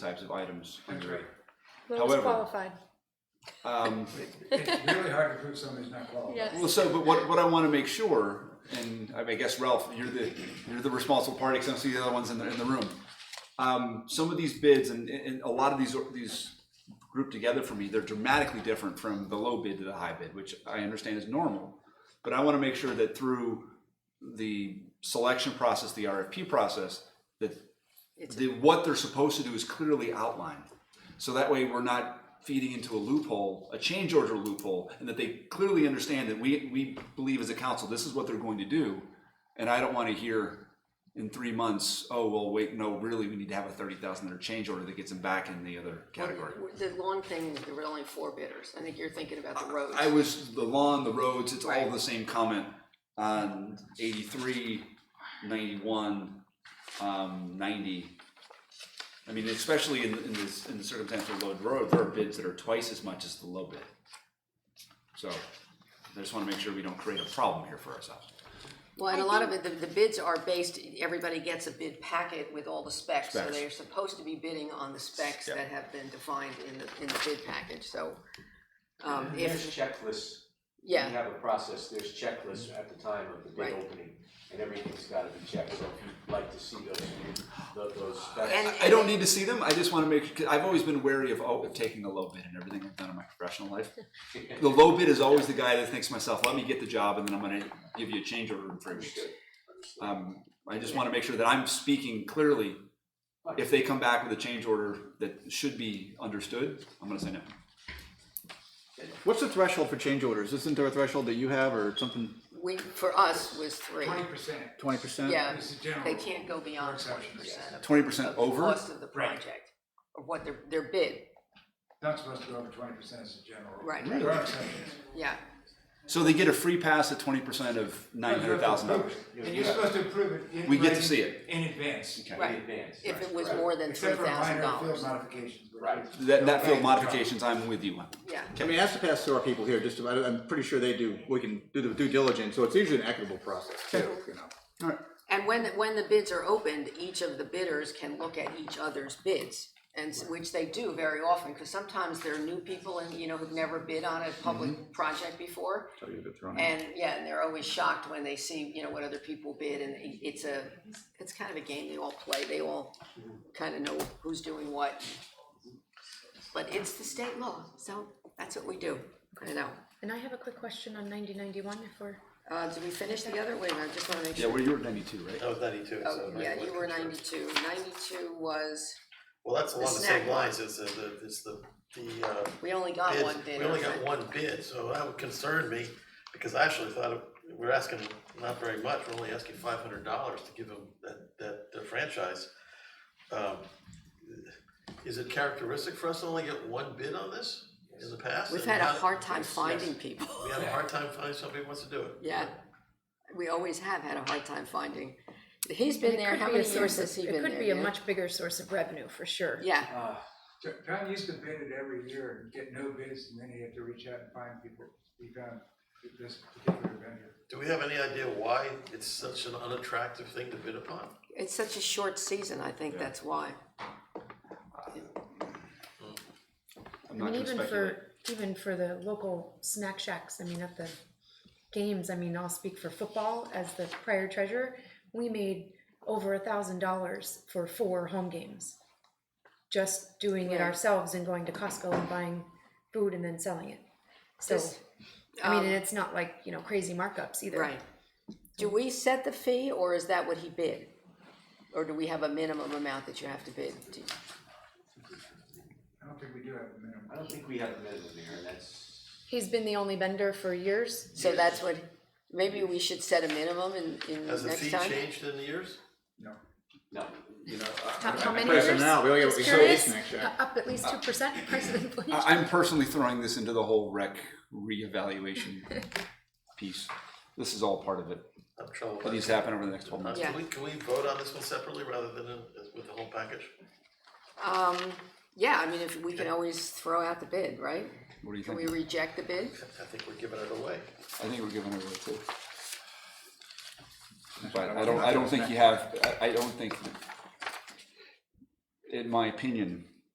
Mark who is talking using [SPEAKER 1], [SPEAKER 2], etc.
[SPEAKER 1] types of items under it.
[SPEAKER 2] Lowest
[SPEAKER 1] However-
[SPEAKER 2] qualified,
[SPEAKER 1] Um,
[SPEAKER 3] It's really hard to prove somebody's not qualified.
[SPEAKER 1] well,
[SPEAKER 2] yes.
[SPEAKER 1] so, but what, what I want to make sure, and I mean, I guess Ralph, you're the, you're the responsible party, because I'm seeing the other ones in the, in the room. Um, some of these bids and, and a lot of these, these grouped together for me, they're dramatically different from the low bid to the high bid, which I understand is normal. But I want to make sure that through the selection process, the RFP process, that the, what they're supposed to do is clearly outlined. So that way we're not feeding into a loophole, a change order loophole, and that they clearly understand that we, we believe as a council, this is what they're going to do. And I don't want to hear in three months, oh, well, wait, no, really, we need to have a thirty thousand dollar change order that gets them back in the other category.
[SPEAKER 4] The lawn thing, there were only four bidders. I think you're thinking about the roads.
[SPEAKER 1] I was the lawn, the roads, it's all the same comment on 83, 91, um, 90. I mean, especially in, in this, in the circumstance of low road, there are bids that are twice as much as the low bid. So I just want to make sure we don't create a problem here for ourselves.
[SPEAKER 4] Well, and a lot of it, the, the bids are based, everybody gets a bid packet with all the specs. So
[SPEAKER 1] Specs.
[SPEAKER 4] they're supposed to be bidding on the specs
[SPEAKER 1] Yeah.
[SPEAKER 4] that have been defined in the, in the bid package, so. Um,
[SPEAKER 5] There's
[SPEAKER 4] if,
[SPEAKER 5] checklists. We
[SPEAKER 4] yeah,
[SPEAKER 5] have a process, there's checklists at the time of the
[SPEAKER 4] Right.
[SPEAKER 5] bid opening, and everything's gotta be checked, so if you'd like to see those, tho- those
[SPEAKER 4] And-
[SPEAKER 5] specs.
[SPEAKER 1] I don't need to see them, I just want to make, 'cause I've always been wary of, oh, of taking the low bid and everything I've done in my professional life. The low bid is always the guy that thinks to myself, let me get the job and then I'm going to give you a change order in three weeks.
[SPEAKER 5] Understood, understood.
[SPEAKER 1] Um, I just want to make sure that I'm speaking clearly. If they come back with a change order that should be understood, I'm gonna say no.
[SPEAKER 6] What's the threshold for change orders? Isn't there a threshold that you have or something,
[SPEAKER 4] we, for us was three.
[SPEAKER 3] Twenty percent.
[SPEAKER 6] twenty percent?
[SPEAKER 4] Yeah,
[SPEAKER 3] This is general.
[SPEAKER 4] they can't go beyond
[SPEAKER 3] For
[SPEAKER 4] twenty
[SPEAKER 3] exceptions,
[SPEAKER 4] percent of
[SPEAKER 1] Twenty percent
[SPEAKER 4] the
[SPEAKER 1] over,
[SPEAKER 4] cost of the
[SPEAKER 3] Right.
[SPEAKER 4] project, or what their, their bid,
[SPEAKER 3] Not supposed to go over twenty percent as a general. rule.
[SPEAKER 4] Right.
[SPEAKER 3] There are exceptions.
[SPEAKER 4] yeah.
[SPEAKER 1] so they get a free pass at twenty percent of nine hundred thousand dollars.
[SPEAKER 3] And you're supposed to approve it. in
[SPEAKER 1] We get to
[SPEAKER 3] writing
[SPEAKER 1] see it.
[SPEAKER 3] In advance.
[SPEAKER 1] Okay.
[SPEAKER 4] Right.
[SPEAKER 5] advance,
[SPEAKER 4] If
[SPEAKER 5] right,
[SPEAKER 4] it was
[SPEAKER 5] right.
[SPEAKER 4] more than three
[SPEAKER 3] Except for
[SPEAKER 4] thousand
[SPEAKER 3] minor
[SPEAKER 4] dollars,
[SPEAKER 3] field modifications. but
[SPEAKER 5] Right.
[SPEAKER 1] That, that field
[SPEAKER 3] Okay.
[SPEAKER 1] modifications, I'm with you on.
[SPEAKER 4] yeah.
[SPEAKER 6] I mean, it has to pass through our people here, just, about- I'm pretty sure they do, we can do the due diligence, so it's usually an equitable process too, you know?
[SPEAKER 1] Alright,
[SPEAKER 4] And when, when the bids are opened, each of the bidders can look at each other's bids, and, s- which they do very often, because sometimes there are new people and, you know, who've never bid on a public project before.
[SPEAKER 6] So you get thrown out.
[SPEAKER 4] And, yeah, and they're always shocked when they see, you know, what other people bid, and i- it's a, it's kind of a game they all play, they all kind of know who's doing what. But it's the state law, so that's what we do, I know.
[SPEAKER 2] And I have a quick question on ninety ninety-one if we're,
[SPEAKER 4] Uh, did we finish the other, wait, I just wanna make
[SPEAKER 1] yeah,
[SPEAKER 4] sure.
[SPEAKER 1] well, you were ninety-two, right?
[SPEAKER 7] That was ninety-two, so.
[SPEAKER 4] Oh, yeah, you were
[SPEAKER 7] ninety.
[SPEAKER 4] ninety-two, ninety-two was.
[SPEAKER 7] Well, that's along
[SPEAKER 4] the
[SPEAKER 7] the
[SPEAKER 4] snack
[SPEAKER 7] same
[SPEAKER 4] bar.
[SPEAKER 7] lines, it's the, the- it's the, the, uh,
[SPEAKER 4] We only got one
[SPEAKER 7] bids,
[SPEAKER 4] bid.
[SPEAKER 7] we only
[SPEAKER 4] okay.
[SPEAKER 7] got one bid, so that would concern me, because I actually thought it- we're asking not very much, we're only asking five hundred dollars to give them that, that the franchise. Um, Is it characteristic for us to only get one bid on this in the past?
[SPEAKER 4] We've
[SPEAKER 7] And
[SPEAKER 4] had a
[SPEAKER 7] how-
[SPEAKER 4] hard time
[SPEAKER 7] yes, yes.
[SPEAKER 4] finding people.
[SPEAKER 7] We had a hard time finding somebody who wants to do it.
[SPEAKER 4] Yeah, we always have had a hard time finding. He's been
[SPEAKER 2] it
[SPEAKER 4] there,
[SPEAKER 2] could
[SPEAKER 4] how
[SPEAKER 2] be a
[SPEAKER 4] many
[SPEAKER 2] source of-
[SPEAKER 4] years has he been
[SPEAKER 2] It
[SPEAKER 4] there?
[SPEAKER 2] could be a
[SPEAKER 4] yeah?
[SPEAKER 2] much bigger source of revenue for sure.
[SPEAKER 4] Yeah,
[SPEAKER 5] Ah,
[SPEAKER 3] John- John used to bid it every year and get no bids, and then he had to reach out and find people. He found this particular vendor.
[SPEAKER 7] Do we have any idea why it's such an unattractive thing to bid upon?
[SPEAKER 4] it's such a short season, I think that's why.
[SPEAKER 1] I'm not
[SPEAKER 2] I mean,
[SPEAKER 1] gonna
[SPEAKER 2] even
[SPEAKER 1] speculate.
[SPEAKER 2] for, even for the local snack shacks, I mean, at the games, I mean, I'll speak for football as the prior treasurer, we made over a thousand dollars for four home games. Just doing it
[SPEAKER 4] Yeah.
[SPEAKER 2] ourselves and going to Costco and buying food and then selling it. So,
[SPEAKER 4] This-
[SPEAKER 2] I mean,
[SPEAKER 4] um,
[SPEAKER 2] and it's not like, you know, crazy markups either.
[SPEAKER 4] Right. Do we set the fee or is that what he bid? Or do we have a minimum amount that you have to bid? Do-
[SPEAKER 3] I don't think we do have a minimum.
[SPEAKER 5] I don't think we have a minimum here, and that's,
[SPEAKER 2] He's been the only vendor for years.
[SPEAKER 4] So that's what, maybe we should set a minimum in, in
[SPEAKER 7] Has the
[SPEAKER 4] next
[SPEAKER 7] fee
[SPEAKER 4] time?
[SPEAKER 7] changed in the years?
[SPEAKER 3] No.
[SPEAKER 5] no,
[SPEAKER 1] You know,
[SPEAKER 2] How, how many years?
[SPEAKER 6] Personnel, we only have
[SPEAKER 2] Just
[SPEAKER 6] we have
[SPEAKER 2] curious, Uh,
[SPEAKER 6] snack shack.
[SPEAKER 2] Up at least two percent price
[SPEAKER 6] Uh,
[SPEAKER 2] of inflation.
[SPEAKER 1] I, I'm personally throwing this into the whole rec reevaluation piece. This is all part of it.
[SPEAKER 7] I'm troubled. by
[SPEAKER 1] It needs
[SPEAKER 7] that.
[SPEAKER 1] to happen over the next twelve months.
[SPEAKER 4] Yeah.
[SPEAKER 7] Can we, can we vote on this one separately rather than in- with the whole package?
[SPEAKER 4] Um, yeah, I mean, if, we can always throw out the bid, right?
[SPEAKER 1] What do you
[SPEAKER 4] Can we
[SPEAKER 1] think?
[SPEAKER 4] reject the bid?
[SPEAKER 7] I think we're giving it away.
[SPEAKER 1] I think we're giving it away too. But I don't, I don't think you have, I, I don't think, in my opinion,